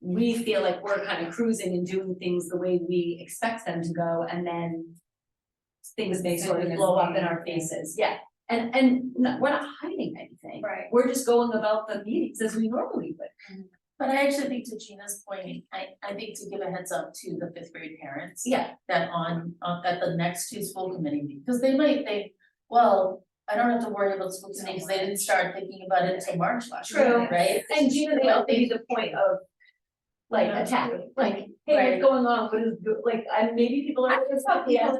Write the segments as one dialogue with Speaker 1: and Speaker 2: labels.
Speaker 1: we feel like we're kind of cruising and doing things the way we expect them to go and then things may sort of blow up in our faces, yeah. And and no- we're not hiding anything.
Speaker 2: Right.
Speaker 1: We're just going about the meetings as we normally would.
Speaker 2: But I actually think to Gina's point, I I think to give a heads up to the fifth grade parents.
Speaker 1: Yeah.
Speaker 2: That on on at the next two school committee meetings, because they might think, well, I don't have to worry about school committee, because they didn't start thinking about it until March last year,
Speaker 1: True.
Speaker 2: right?
Speaker 1: And Gina, they all made the point of like
Speaker 2: Yeah.
Speaker 1: attack, like, hey, what's
Speaker 2: Right.
Speaker 1: going on? What is, go- like, I maybe people are. Yeah,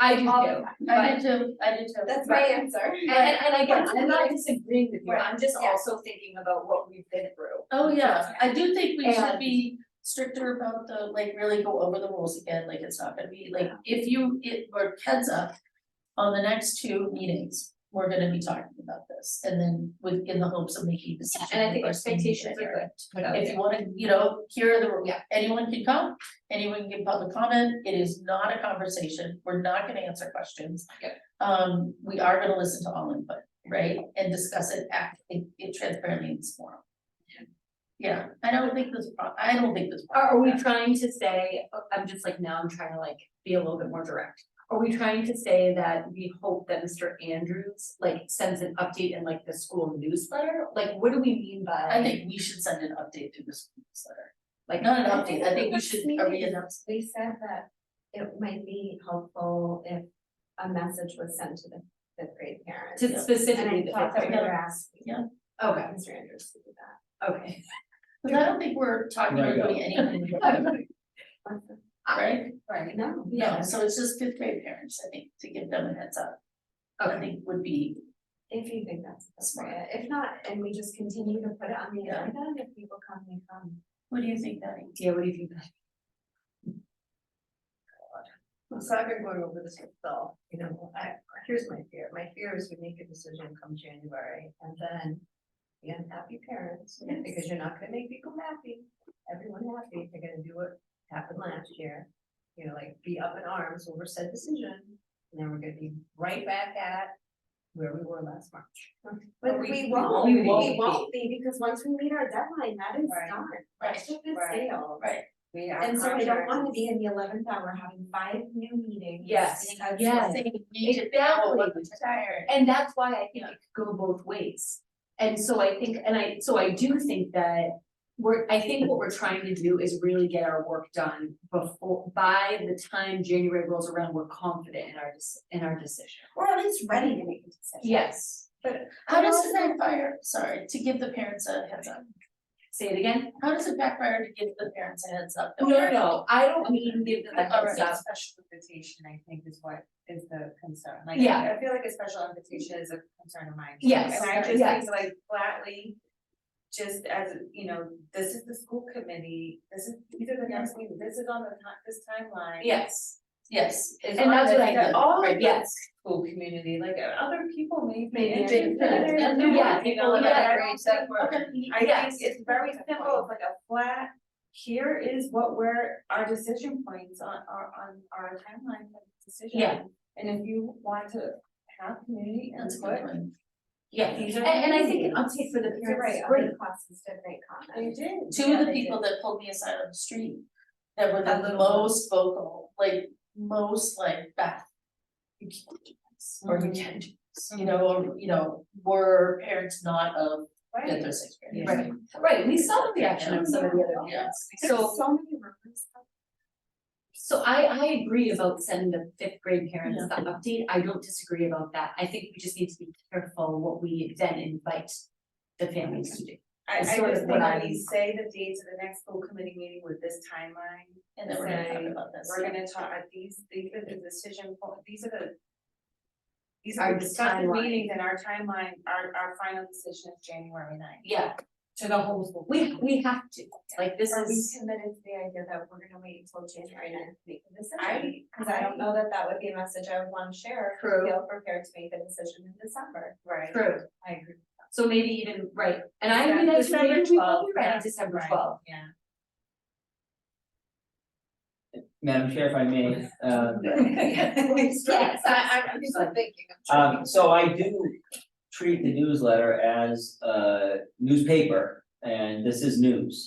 Speaker 1: I do
Speaker 3: all the
Speaker 1: too.
Speaker 2: I did too, I did too.
Speaker 3: That's my answer.
Speaker 1: And and and again, I'm not disagreeing with you,
Speaker 3: Right.
Speaker 1: I'm just
Speaker 3: Yeah.
Speaker 1: also thinking about what we've been through.
Speaker 2: Oh, yeah, I do think we should
Speaker 1: And-
Speaker 2: be stricter about the, like, really go over the rules again, like, it's not gonna be, like, if you, it, or heads up. On the next two meetings, we're gonna be talking about this, and then with, in the hopes of making a decision.
Speaker 1: And I think
Speaker 2: the first meeting in
Speaker 1: expectations are
Speaker 2: January.
Speaker 1: good to put out
Speaker 2: If
Speaker 1: there.
Speaker 2: you wanna, you know, here are the, rules.
Speaker 1: Yeah.
Speaker 2: anyone can come, anyone can give public comment, it is not a conversation, we're not gonna answer questions.
Speaker 1: Yep.
Speaker 2: Um, we are gonna listen to all input, right, and discuss it act, it, it transparently in this forum. Yeah, I don't think this, pro- I don't think this.
Speaker 1: Are are we trying to say, oh, I'm just like, now I'm trying to like be a little bit more direct. Are we trying to say that we hope that Mr. Andrews like sends an update in like the school newsletter? Like, what do we mean
Speaker 2: I
Speaker 1: by,
Speaker 2: think we should send an update to this newsletter, like, not an update, I think we should, are we announcing?
Speaker 3: We said that it might be helpful if a message was sent to the fifth grade parents.
Speaker 1: to specifically the
Speaker 3: And I thought
Speaker 1: fifth
Speaker 3: that we
Speaker 1: grade?
Speaker 3: were asking.
Speaker 2: Yeah.
Speaker 1: Okay,
Speaker 3: Mr. Andrews to do that.
Speaker 1: okay.
Speaker 2: Cause I don't think we're talking
Speaker 4: Right,
Speaker 2: about doing anything, right?
Speaker 1: Right.
Speaker 3: No.
Speaker 2: No, so it's just fifth grade parents, I think, to give them a heads up, I think would be
Speaker 3: If you think that's appropriate, if not, and we just continue to put it on the
Speaker 2: Yeah.
Speaker 3: agenda, and if people come, they come.
Speaker 2: What do you think, Danny?
Speaker 1: Yeah, what do you think?
Speaker 5: I'm sorry, I've been going over this with Phil, you know, I, here's my fear, my fear is we make a decision come January and then. The unhappy parents,
Speaker 2: Yes.
Speaker 5: because you're not gonna make people happy, everyone happy, they're gonna do what happened last year. You know, like be up in arms over said decision, and then we're gonna be right back at where we were last March.
Speaker 3: But
Speaker 5: we-
Speaker 3: we
Speaker 5: we
Speaker 3: won't,
Speaker 5: won't
Speaker 3: we
Speaker 5: be.
Speaker 3: won't be, because once we meet our deadline, that is
Speaker 5: Right,
Speaker 3: done,
Speaker 2: right,
Speaker 3: that ship is
Speaker 5: right,
Speaker 3: sailed.
Speaker 2: right.
Speaker 5: We
Speaker 3: And so I don't wanna be in the eleventh hour having five new meetings.
Speaker 1: Yes,
Speaker 3: because it's
Speaker 1: yes. Exactly.
Speaker 2: Tired.
Speaker 1: And that's why I think it could go both ways. And so I think, and I, so I do think that we're, I think what we're trying to do is really get our work done before, by the time January rolls around, we're confident in our, dec- in our decision.
Speaker 3: Or at least ready to make a decision.
Speaker 1: Yes,
Speaker 2: How does it backfire, sorry, to give the parents a heads up?
Speaker 1: say it again.
Speaker 2: How does it backfire to give the parents a heads up?
Speaker 1: No, no, no, I don't mean give them a heads up.
Speaker 6: special invitation, I think, is what is the concern, like,
Speaker 1: Yeah.
Speaker 6: I I feel like a special invitation is a concern of mine.
Speaker 1: Yes,
Speaker 6: And I just
Speaker 1: yes.
Speaker 6: think like flatly, just as, you know, this is the school committee, this is, these are the next meeting, this is on the ti- this timeline.
Speaker 1: Yes,
Speaker 2: Yes.
Speaker 6: It's
Speaker 1: and
Speaker 6: on
Speaker 1: that's
Speaker 6: the-
Speaker 1: what I
Speaker 6: the-
Speaker 1: think,
Speaker 6: All
Speaker 1: Right,
Speaker 6: of the
Speaker 1: yes,
Speaker 6: school community, like uh, other people may be
Speaker 1: Maybe
Speaker 6: interested.
Speaker 1: interested.
Speaker 6: in it,
Speaker 1: Yeah,
Speaker 6: you
Speaker 1: people,
Speaker 6: know, like,
Speaker 1: yeah,
Speaker 6: I don't think we're- I
Speaker 1: Yes.
Speaker 6: think it's very simple, it's like a flat, here is what we're, our decision points on, are, on our timeline for the decision.
Speaker 1: Yeah.
Speaker 6: And if you want to have community
Speaker 2: That's a
Speaker 6: input,
Speaker 2: good one.
Speaker 1: yeah, and,
Speaker 6: these are.
Speaker 1: and I think an update for the
Speaker 3: You're
Speaker 1: parents
Speaker 3: right,
Speaker 1: is great.
Speaker 3: other classes did make
Speaker 6: They
Speaker 3: comments.
Speaker 6: did.
Speaker 2: Two of
Speaker 6: Yeah,
Speaker 2: the
Speaker 6: they
Speaker 2: people
Speaker 6: did.
Speaker 2: that pulled me aside on the street, that were
Speaker 5: That
Speaker 2: the
Speaker 5: little
Speaker 2: most vocal, like, most like, Beth. You can't do this, or you
Speaker 6: Mhm.
Speaker 2: can't do this, you know, or, you know, were parents not of fifth
Speaker 6: Right.
Speaker 2: or sixth grade.
Speaker 5: Yeah.
Speaker 1: Right, right, we saw the reaction of some of the other
Speaker 2: Yes.
Speaker 1: parents,
Speaker 3: There's
Speaker 1: so.
Speaker 3: so many rumors. out
Speaker 1: So I I agree about sending the fifth grade parents the update, I don't disagree about that, I think we just need to be careful what we then invite the families to do.
Speaker 6: I, I
Speaker 1: It's
Speaker 6: just
Speaker 1: sort of
Speaker 6: think
Speaker 1: what
Speaker 6: when
Speaker 1: I'm-
Speaker 6: we say the dates of the next school committee meeting with this timeline,
Speaker 2: And then we're gonna talk about this.
Speaker 6: we're gonna talk, uh, these, these are the decision, po- these are the. These
Speaker 1: Our
Speaker 6: are the discussed
Speaker 1: timeline.
Speaker 6: meetings and our timeline, our, our final decision is January ninth.
Speaker 1: Yeah,
Speaker 6: To the whole school.
Speaker 1: we we have to, like this
Speaker 3: Are we
Speaker 1: is,
Speaker 3: committed to the idea that we're gonna wait until January ninth to make the decision?
Speaker 6: I,
Speaker 3: Cause I don't know that that would be a message I would wanna share, if
Speaker 1: True.
Speaker 3: we feel prepared to make the decision in December.
Speaker 6: right,
Speaker 1: true,
Speaker 6: I agree.
Speaker 1: so maybe even, right, and I agree
Speaker 6: Yeah,
Speaker 1: that's
Speaker 6: December
Speaker 1: maybe we will
Speaker 6: 12th,
Speaker 1: be ready
Speaker 6: yeah,
Speaker 1: December
Speaker 6: right.
Speaker 1: twelfth.
Speaker 6: Yeah.
Speaker 4: Madam Chair, if I may, um,
Speaker 1: Yes,
Speaker 5: I, I'm just thinking, I'm
Speaker 4: um, so I do treat the newsletter as a newspaper, and this is news.